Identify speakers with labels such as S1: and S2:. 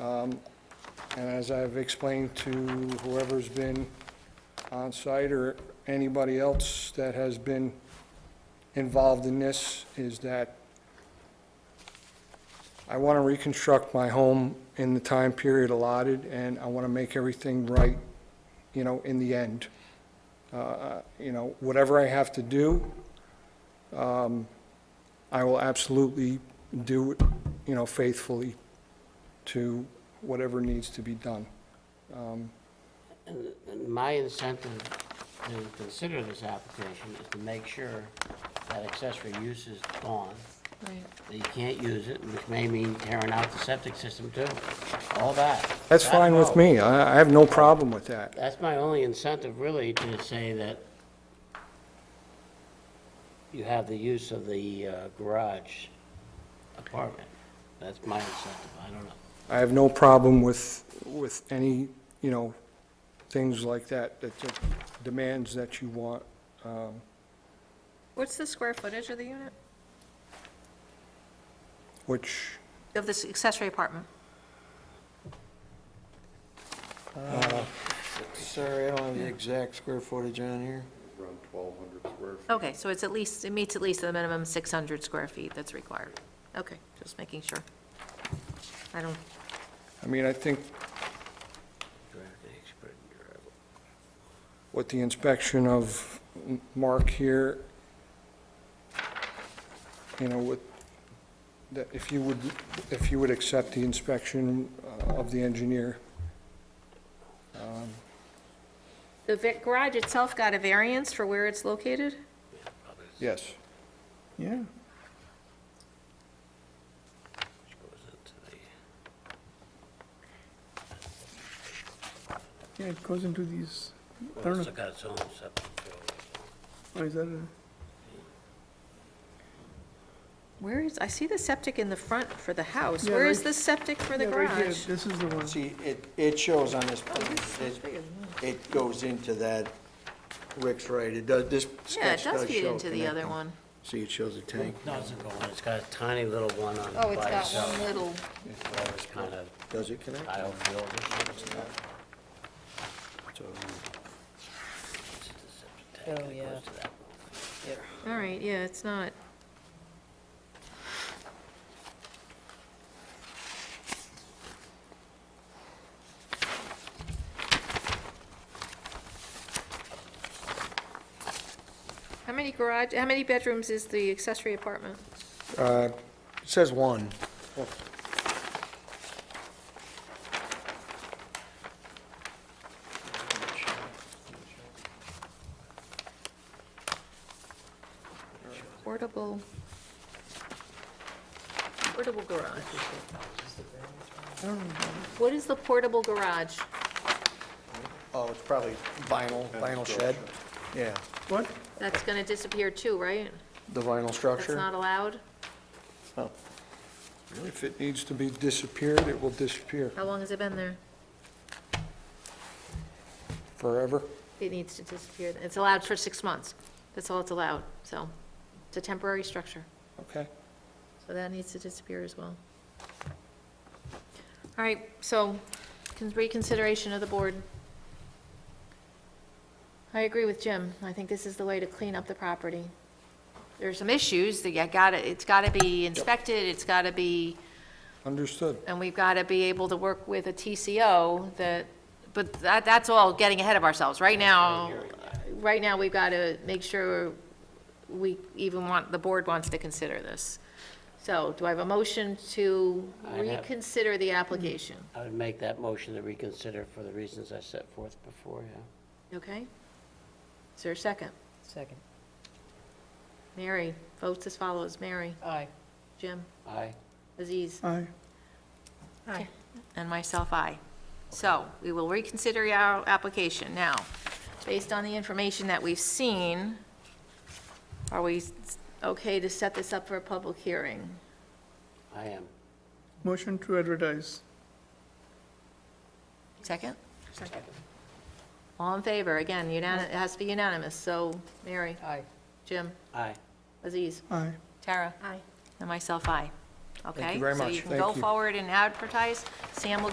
S1: Um, And as I've explained to whoever's been on site or anybody else that has been involved in this, is that I want to reconstruct my home in the time period allotted, and I want to make everything right, you know, in the end. Uh, You know, whatever I have to do, um, I will absolutely do it, you know, faithfully to whatever needs to be done.
S2: And My incentive to consider this application is to make sure that accessory use is gone,
S3: Right.
S2: that you can't use it, which may mean tearing out the septic system too, all that.
S1: That's
S2: That,
S1: fine with
S2: no.
S1: me. I, I have no problem with that.
S2: That's my only incentive really to say that you have the use of the uh, garage apartment. That's my incentive, I don't know.
S1: I have no problem with, with any, you know, things like that, that that demands that you want.
S3: What's the square footage of the unit?
S1: Which,
S3: Of this accessory apartment?
S4: Sorry, I don't have the exact square footage on here.
S5: around 1,200 square feet.
S3: Okay, so it's at least, it meets at least the minimum 600 square feet that's required. Okay, just making sure. I don't,
S1: I mean, I think with the inspection of Mark here, you know, with, that if you would, if you would accept the inspection uh, of the engineer,
S3: the va- garage itself got a variance for where it's located?
S1: yes.
S4: Yeah.
S2: Which goes into the-
S4: Yeah, it goes into these, I
S2: well,
S4: don't
S2: It's
S4: know,
S2: got its own septic too.
S4: oh, is that a?
S3: Where is, I see the septic in the front for the house.
S4: Yeah,
S3: Where
S4: right-
S3: is the septic for the
S4: Yeah, right here, Oh,
S3: garage?
S4: This is the one.
S6: See, it, it shows on this plan,
S3: It's
S6: it,
S3: bigger than that.
S6: it goes into that, Rick's right, it does, this
S3: Yeah, it
S6: sketch does show.
S3: does feed into the other
S6: connecting.
S3: one.
S6: See, it shows a tank.
S2: No, it doesn't go in, it's got a tiny little one on
S3: Oh,
S2: it
S3: it's
S2: by
S3: got
S2: itself.
S3: one little,
S2: Well, It's kind of
S6: Does it connect?
S2: tile field or something.
S6: So,
S2: um, It's just a septic tank, and it goes to that.
S3: all right, yeah, it's not. How many garage, how many bedrooms is the accessory apartment?
S6: uh, It says one.
S3: Portable. Portable garage. What is the portable garage?
S6: Oh, it's probably vinyl, vinyl shed. Yeah,
S4: What?
S3: That's gonna disappear too, right?
S6: the vinyl
S3: That's
S6: structure.
S3: not allowed?
S1: If it needs to be disappeared, it will disappear
S3: How long has it been there?
S1: forever.
S3: It needs to disappear. It's allowed for six months. That's all it's allowed, so it's a temporary structure.
S1: Okay.
S3: So that needs to disappear as well. All right, so con- reconsideration of the board. I agree with Jim. I think this is the way to clean up the property. There's some issues that you gotta, it's gotta be inspected, it's gotta be,
S1: Understood.
S3: and we've gotta be able to work with a TCO that, but that, that's all getting ahead of ourselves. Right now, right now, we've gotta make sure we even want, the board wants to consider this. So do I have a motion to
S2: I have-
S3: reconsider the application?
S2: I would make that motion to reconsider for the reasons I set forth before, yeah.
S3: Okay? Is there a second?
S7: Second.
S3: Mary, votes as follows. Mary,
S7: Aye.
S3: Jim,
S2: Aye.
S3: Aziz,
S4: Aye.
S3: Aye. and myself, aye. So we will reconsider our application. Now, based on the information that we've seen, are we s- okay to set this up for a public hearing?
S2: I am.
S4: Motion to advertise.
S3: Second? Second. All in favor, again, unanimous, it has to be unanimous, so Mary,
S7: Aye.
S3: Jim,
S2: Aye.
S3: Aziz,
S4: Aye.
S3: Tara. Aye. And myself, aye. okay?
S6: very
S3: So
S6: much.
S3: you can
S1: Thank
S3: go
S1: you.
S3: forward and advertise. Sam will